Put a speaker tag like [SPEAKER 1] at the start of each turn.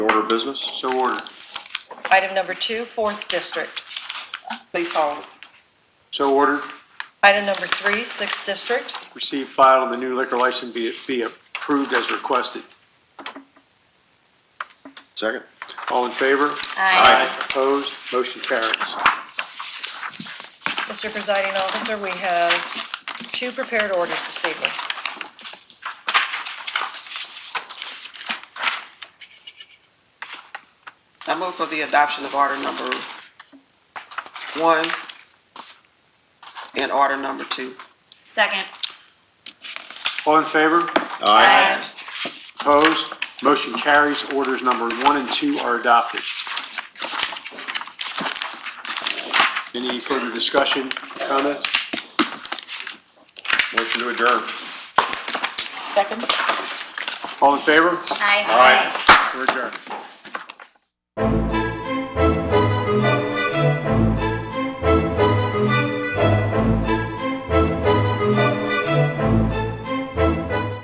[SPEAKER 1] Order of business?
[SPEAKER 2] So ordered.
[SPEAKER 3] Item number two, fourth district.
[SPEAKER 4] Please hold.
[SPEAKER 2] So ordered.
[SPEAKER 3] Item number three, sixth district.
[SPEAKER 2] Receive file and the new liquor license be, be approved as requested.
[SPEAKER 1] Second.
[SPEAKER 2] All in favor?
[SPEAKER 1] Aye.
[SPEAKER 2] Opposed? Motion carries.
[SPEAKER 3] Mr. Presiding Officer, we have two prepared orders this evening.
[SPEAKER 4] I move for the adoption of order number one and order number two.
[SPEAKER 5] Second.
[SPEAKER 2] All in favor?
[SPEAKER 1] Aye.
[SPEAKER 2] Opposed? Motion carries. Orders number one and two are adopted. Any further discussion, comments?
[SPEAKER 1] Motion to adjourn.
[SPEAKER 4] Second.
[SPEAKER 2] All in favor?
[SPEAKER 5] Aye.
[SPEAKER 1] Aye.
[SPEAKER 2] We're adjourned.